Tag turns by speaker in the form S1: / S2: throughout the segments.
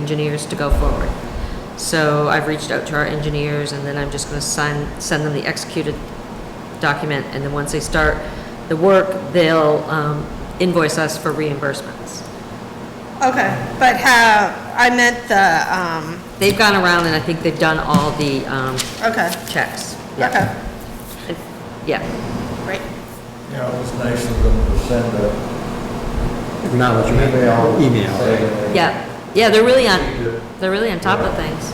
S1: engineers to go forward. So I've reached out to our engineers, and then I'm just gonna sign, send them the executed document, and then once they start the work, they'll um, invoice us for reimbursements.
S2: Okay, but how, I meant the, um,
S1: They've gone around, and I think they've done all the um,
S2: okay,
S1: checks.
S2: okay,
S1: Yeah,
S2: great.
S3: Yeah, it was nice of them to send a
S4: Acknowledgement.
S3: email.
S4: Email.
S3: saying-
S1: yeah, yeah, they're really on, they're really on top of things.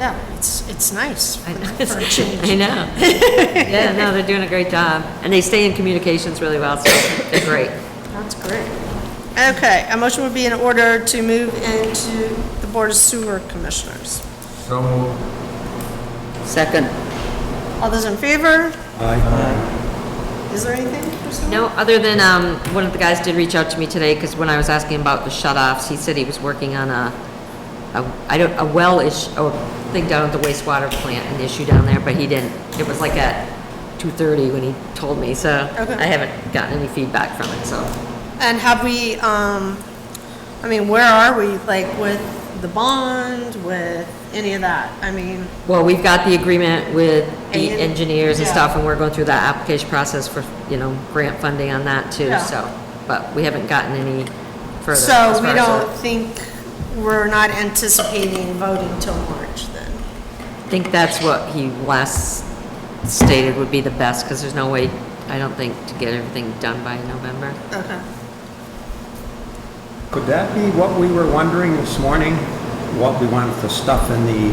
S2: Yeah, it's, it's nice
S1: I
S2: for for a change.
S1: I know. Yeah, no, they're doing a great job, and they stay in communications really well, so they're great.
S2: That's great. Okay, a motion would be in order to move into the Board of Sewer Commissioners.
S3: So moved.
S1: Second.
S2: All those in favor?
S4: Aye.
S2: Is there anything? for sewer?
S1: No, other than, um, one of the guys did reach out to me today, because when I was asking about the shut-offs, he said he was working on a, a, I don't, a well ish, or thing down at the wastewater plant, an issue down there, but he didn't. It was like at two-thirty when he told me, so
S2: Okay.
S1: I haven't gotten any feedback from it, so.
S2: And have we, um, I mean, where are we, like, with the bond, with any of that? I mean,
S1: Well, we've got the agreement with the
S2: And-
S1: engineers and
S2: yeah.
S1: stuff, and we're going through that application process for, you know, grant funding on that too,
S2: Yeah.
S1: so. But we haven't gotten any further. as
S2: so
S1: far
S2: we
S1: as
S2: don't
S1: that.
S2: think, we're not anticipating voting till March then?
S1: I think that's what he last stated would be the best, because there's no way, I don't think, to get everything done by November.
S2: Okay.
S4: Could that be what we were wondering this morning? What we wanted to stuff in the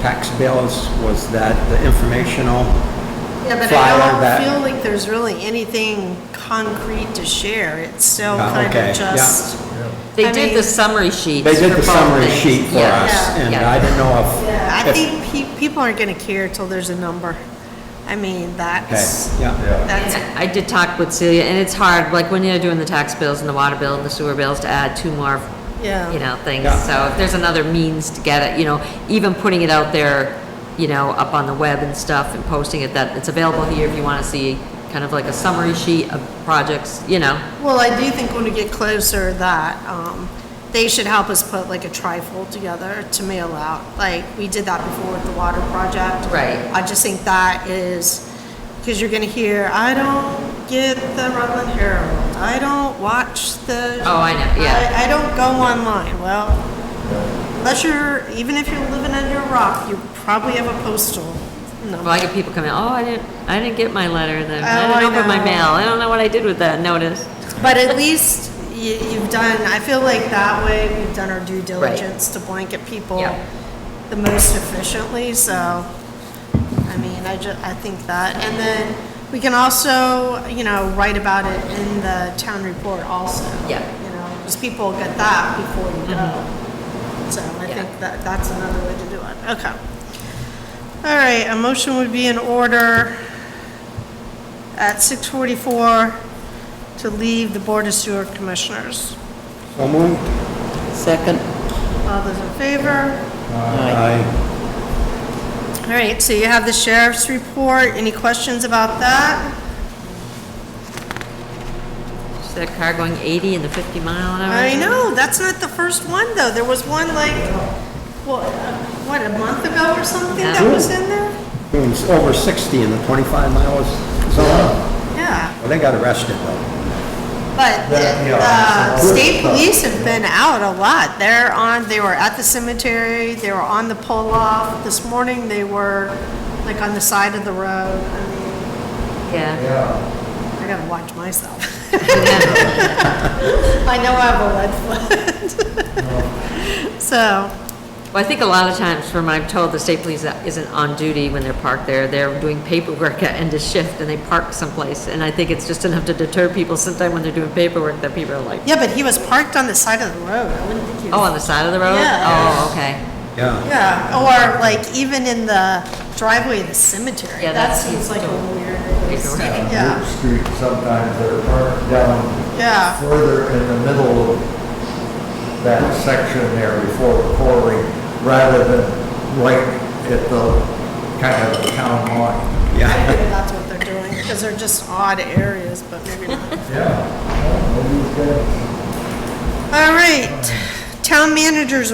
S4: tax bills was that the informational
S2: Yeah, but
S4: Flyer
S2: I
S4: that-
S2: don't feel like there's really anything concrete to share. It's still
S4: Yeah,
S2: kind
S4: Oh, okay,
S2: of
S4: yeah.
S2: just, I
S1: They did
S2: mean-
S1: the summary sheets.
S4: They did
S1: for
S4: the
S1: both
S4: summary
S1: things.
S4: sheet for
S1: Yeah,
S4: us, and
S1: yeah.
S4: I didn't know
S2: I
S4: if- if,
S2: think pe- people aren't going to care till there's a number. I mean,
S4: okay,
S2: that's,
S4: yeah.
S2: that's,
S1: And I did talk with Celia, and it's hard, like, when you're doing the tax bills and the water bill and the sewer bills, to add two more,
S2: Yeah.
S1: you know, things.
S4: Yeah.
S1: So if there's another means to get it, you know, even putting it out there, you know, up on the web and stuff and posting it, that it's available here if you want to see kind of like a summary sheet of projects, you know.
S2: well, I do think when we get closer that, um, they should help us put like a trifold together to mail out. Like, we did that before with the water project.
S1: Right.
S2: I just think that is, because you're going to hear, I don't get the Rutland Herald. I don't watch the.
S1: Oh, I know, yeah.
S2: I, I don't go online. Well, unless you're, even if you're living under a rock, you probably have a postal
S1: Well,
S2: number.
S1: I get people coming, oh, I didn't, I didn't get my letter, then,
S2: Oh,
S1: I
S2: I
S1: didn't open my
S2: know.
S1: mail, I don't know what I did with that notice.
S2: But at least you, you've done, I feel like that way we've done our due diligence to blanket people
S1: Yeah.
S2: the most efficiently, so, I mean, I ju, I think that. And then we can also, you know, write about it in the town report also.
S1: Yeah.
S2: You know, because people get that before you go. So I
S1: Mm-hmm. Yeah.
S2: think that, that's another way to do it, okay. All right, a motion would be in order at 6:44 to leave the Board of Sewer Commissioners.
S4: So moved.
S5: Second.
S2: All those in favor?
S4: Aye.
S2: All right, so you have the sheriff's report. Any questions about that?
S1: Just that car going eighty in the fifty mile an hour.
S2: I know, that's not the first one, though. There was one like, what, what, a month ago or something that was in there?
S4: It was over 60 in the 25 miles zone.
S2: Yeah,
S4: Well, they got arrested though.
S2: but the
S3: That, yeah.
S2: the state police have been out a lot. They're on, they were at the cemetery, they were on the pull-off. This morning, they were like on the side of the road. I mean,
S1: Yeah,
S3: Yeah,
S2: I gotta watch myself. I know I have a lead foot. So,
S1: well, I think a lot of times from what I'm told, the state police isn't on duty when they're parked there, they're doing paperwork at end of shift and they park someplace, and I think it's just enough to deter people sometime when they're doing paperwork that people are like,
S2: yeah, but he was parked on the side of the road. I wouldn't think he
S1: oh,
S2: was.
S1: on the side of the road?
S2: Yeah.
S1: Oh, okay.
S4: Yeah.
S2: Yeah, or like even in the driveway of the cemetery.
S1: Yeah,
S2: That
S1: that's-
S2: seems like a weird.
S1: Paperwork.
S2: Yeah.
S3: Route Street sometimes they're parked down
S2: Yeah.
S3: further in the middle of that section there before the quarry, rather than right at the kind of town line.
S2: I
S4: Yeah.
S2: think that's what they're doing, because they're just odd areas, but maybe not.
S3: Yeah. Well, maybe it's good.
S2: All right, town manager's